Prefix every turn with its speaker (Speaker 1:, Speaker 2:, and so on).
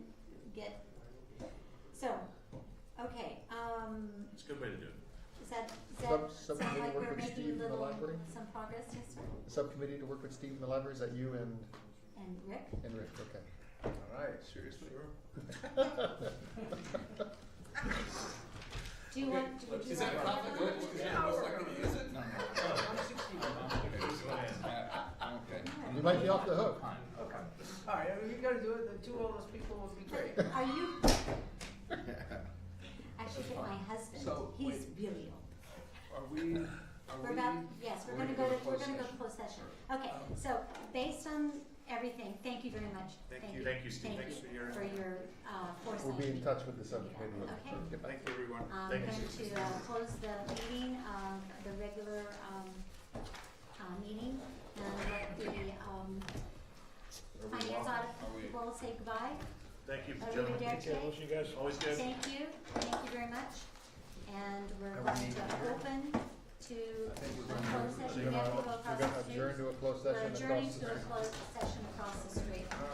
Speaker 1: get, so, okay, um,
Speaker 2: It's a good way to do it.
Speaker 1: is that, is that
Speaker 3: Sub-
Speaker 1: sound
Speaker 3: subcommittee
Speaker 1: like
Speaker 3: work
Speaker 1: we're
Speaker 3: with
Speaker 1: making
Speaker 3: Steve in the
Speaker 1: a little,
Speaker 3: library?
Speaker 1: some progress, yes, sir?
Speaker 3: Subcommittee to work with Steve in the library, is that you and,
Speaker 1: And Rick?
Speaker 3: and Rick, okay.
Speaker 4: All right, seriously?
Speaker 1: Do you want, do- would you
Speaker 5: Is
Speaker 1: like
Speaker 5: that
Speaker 1: to talk
Speaker 5: conflict
Speaker 1: about
Speaker 5: good? Is that most likely to use it? No, no. Okay.
Speaker 3: You might be off the hook.
Speaker 4: Okay. All right, I mean, you gotta do it, the two oldest people would be great.
Speaker 1: But Are you, I should get my husband,
Speaker 5: So,
Speaker 1: he's
Speaker 5: wait.
Speaker 1: really old.
Speaker 5: Are we, are we?
Speaker 1: We're about, yes, we're
Speaker 5: going
Speaker 1: gonna go to, we're
Speaker 5: closed
Speaker 1: gonna go to
Speaker 5: session? Um,
Speaker 1: closed session. Okay, so based on everything, thank you very much.
Speaker 2: Thank you. Thank you, Steve. Thanks for your-
Speaker 1: For your, uh, foresight.
Speaker 3: We'll be in touch with the subcommittee.
Speaker 1: Okay.
Speaker 3: Get
Speaker 2: Thank
Speaker 3: back.
Speaker 2: you, everyone.
Speaker 1: Um,
Speaker 2: Thank
Speaker 1: going
Speaker 2: you.
Speaker 1: to uh, close the meeting, um, the regular, um, uh, meeting, and let the, um, finance
Speaker 5: Are we-
Speaker 1: audit will say goodbye.
Speaker 2: Thank you,
Speaker 1: Are we
Speaker 2: gentlemen.
Speaker 1: there today?
Speaker 6: you guys
Speaker 2: Always good.
Speaker 1: Thank you, thank you very much, and we're
Speaker 3: Are we
Speaker 1: going to
Speaker 3: meeting here?
Speaker 1: open to
Speaker 5: I think we're
Speaker 1: the
Speaker 5: gonna-
Speaker 1: closed
Speaker 3: We're
Speaker 1: session, we have to go
Speaker 3: gonna-
Speaker 1: across
Speaker 3: We're gonna
Speaker 1: the street.
Speaker 3: adjourn to a closed
Speaker 1: We're
Speaker 3: session across
Speaker 1: adjourning to
Speaker 3: the
Speaker 1: a
Speaker 3: street.
Speaker 1: closed session across the street.